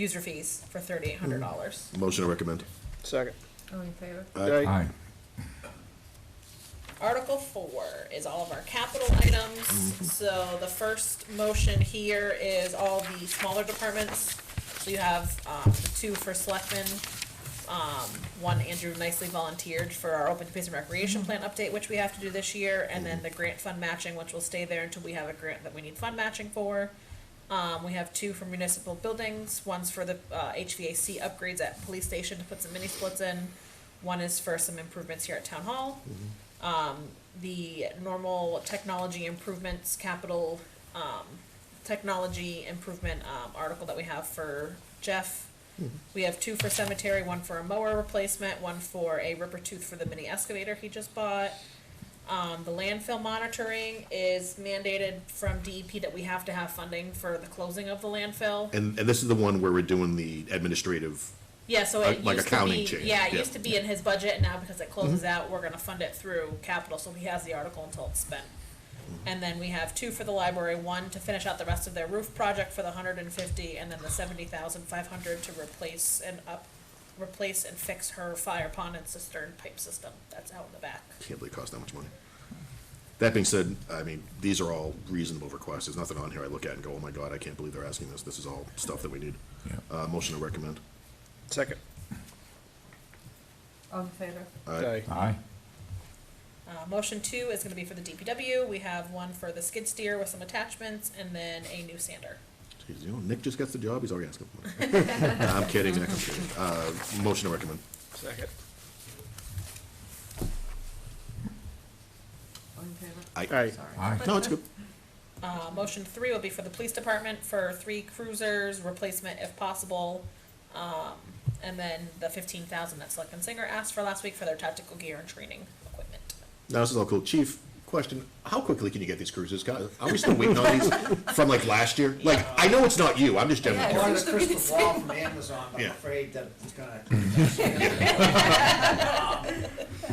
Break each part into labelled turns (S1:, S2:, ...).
S1: user fees for thirty-eight hundred dollars.
S2: Motion to recommend.
S3: Second.
S1: All in favor?
S3: Aye.
S4: Aye.
S1: Article four is all of our capital items, so the first motion here is all the smaller departments. So you have, um, the two for selectmen, um, one Andrew nicely volunteered for our open space and recreation plan update, which we have to do this year, and then the grant fund matching, which will stay there until we have a grant that we need fund matching for. Um, we have two for municipal buildings, one's for the, uh, HVAC upgrades at police station to put some mini splits in, one is for some improvements here at town hall Um, the normal technology improvements, capital, um, technology improvement, um, article that we have for Jeff. We have two for cemetery, one for a mower replacement, one for a ripper tooth for the mini excavator he just bought. Um, the landfill monitoring is mandated from DEP that we have to have funding for the closing of the landfill.
S2: And, and this is the one where we're doing the administrative,
S1: Yeah, so
S2: Uh,
S1: it
S2: like
S1: used to
S2: accounting
S1: be,
S2: change,
S1: yeah, it
S2: yeah.
S1: used to be in his budget, and now because it closes out, we're gonna fund it through capital, so he has the article until it's spent. And then we have two for the library, one to finish out the rest of their roof project for the hundred and fifty, and then the seventy thousand five hundred to replace and up, replace and fix her fire pond and cistern pipe system, that's out in the back.
S2: can't believe it cost that much money. That being said, I mean, these are all reasonable requests. There's nothing on here I look at and go, oh my God, I can't believe they're asking this. This is all stuff that we need.
S4: Yeah.
S2: Uh, motion to recommend.
S3: Second.
S5: All in favor?
S3: Aye.
S4: Aye.
S1: Uh, motion two is gonna be for the DPW, we have one for the skid steer with some attachments, and then a new sander.
S2: Jeez, you know, Nick just gets the job, he's already asking. for money. Nah, I'm kidding, Nick, I'm kidding. Uh, motion to recommend.
S3: Second.
S5: All in favor?
S3: Aye.
S5: Sorry.
S4: Aye.
S2: No, it's good.
S1: Uh, motion three will be for the police department for three cruisers, replacement if possible. Um, and then the fifteen thousand that Selectman Singer asked for last week for their tactical gear and training equipment.
S2: Now, this is all cool. Chief, question, how quickly can you get these cruises? God, Are we still waiting on these from like last year? Like, I know it's not you, I'm just generally
S5: Yeah,
S2: curious.
S5: I was
S6: Wanted a
S5: gonna
S6: crystal ball from Amazon, but
S2: Yeah.
S6: I'm afraid that it's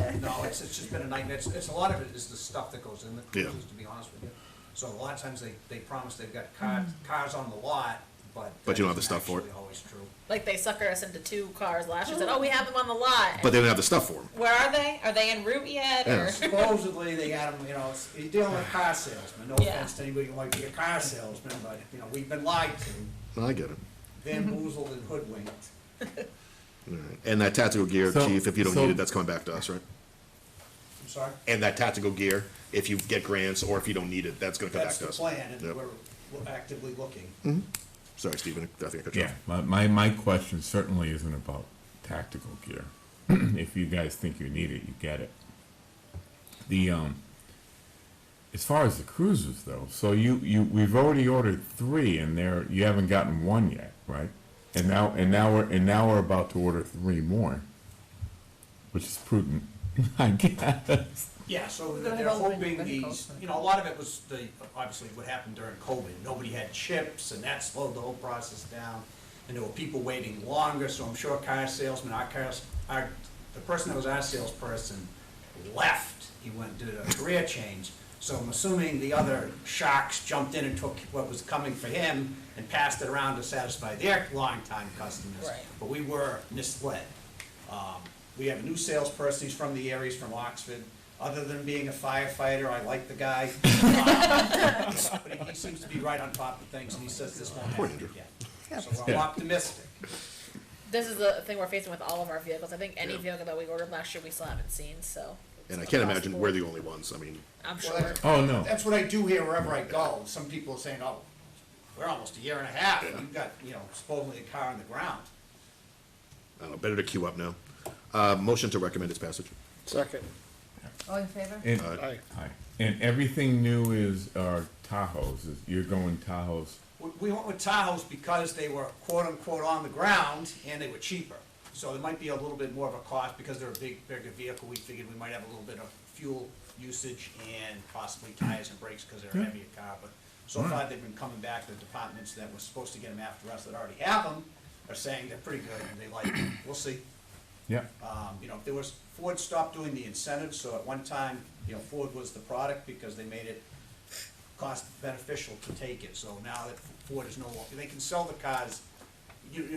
S6: gonna. Um, No, it's, it's just been a nightmare. It's, it's a lot of it is the stuff that goes in the
S2: Yeah.
S6: cruises, to be honest with you. So a lot of times they, they promise they've got cars, cars on the lot, but.
S2: But
S6: that
S2: you don't have the stuff
S6: isn't
S2: for it.
S6: actually Always true.
S1: Like they sucker us into two cars last year, said, oh, we have them on the lot.
S2: But they don't have the stuff for them.
S1: Where are they? Are they en route yet or?
S2: Yes.
S6: Supposedly they got them, you know, it's- you're dealing with car salesmen. No
S1: Yeah.
S6: offense to anybody who might be a car salesman, but, you know, we've been lied to,
S2: I get it.
S6: bamboozled and hoodwinked.
S2: All right. And that tactical gear,
S4: So-
S2: chief, if you don't
S4: so-
S2: need it, that's coming back to us, right?
S6: I'm sorry?
S2: And that tactical gear, if you get grants or if you don't need it, that's gonna come back
S6: That's
S2: to
S6: the
S2: us.
S6: plan, and
S2: Yep.
S6: we're we're actively looking.
S2: Sorry, Stephen, I think I cut you
S4: Yeah,
S2: off.
S4: my, my, my question certainly isn't about tactical gear. If you guys think you need it, you get it. The, um, as far as the cruisers though, so you, you, we've already ordered three and there, you haven't gotten one yet, right? And now, and now we're, and now we're about to order three more, which is prudent, I guess.
S6: Yeah, so
S5: We're
S6: they're
S5: gonna
S6: they're
S5: have all the
S6: hoping
S5: medical
S6: these,
S5: stuff.
S6: you know, a lot of it was the, obviously what happened during COVID. Nobody had chips and that slowed the whole process down. And there were people waiting longer, so I'm sure car salesmen, our cars, our, the person that was our salesperson left. He went, did a career change. So I'm assuming the other sharks jumped in and took what was coming for him and passed it around to satisfy their longtime customers.
S1: Right.
S6: But we were misled. Um, We have a new salesperson, he's from the area, he's from Oxford. Other than being a firefighter, I like the guy. Um, But he- he seems to be right on top of things, and he says this won't happen again. So I'm optimistic.
S1: This is the thing we're facing with all of our vehicles. I think any
S2: Yeah.
S1: vehicle that we ordered last year, we still haven't seen, so. it's
S2: And I can't
S1: across
S2: imagine
S1: the
S2: we're
S1: board.
S2: the only ones, I mean,
S1: I'm
S6: Well,
S1: sure.
S6: that's-
S4: Oh, no.
S6: That's what I do here wherever I go. Some people are saying, oh, we're almost a year and a half, and you've got, you know, supposedly a car on the ground.
S2: I don't know, better to queue up now. Uh, motion to recommend its passage.
S3: Second.
S5: All in favor?
S4: And-
S3: Aye.
S4: Aye. And everything new is, are Tahoes, is- you're going Tahoes.
S6: We- We went with Tahoes because they were quote-unquote on the ground and they were cheaper. So there might be a little bit more of a cost because they're a big, bigger vehicle. We figured we might have a little bit of fuel usage and possibly tires and brakes because they're a heavier car. But so far, they've been coming back, the departments that were supposed to get them after us that already have them are saying they're pretty good and they like them. We'll see.
S4: Yeah.
S6: Um, you know, if there was, Ford stopped doing the incentives, so at one time, you know, Ford was the product because they made it cost beneficial to take it. So now that Ford is no longer, they can sell the cars, you, you-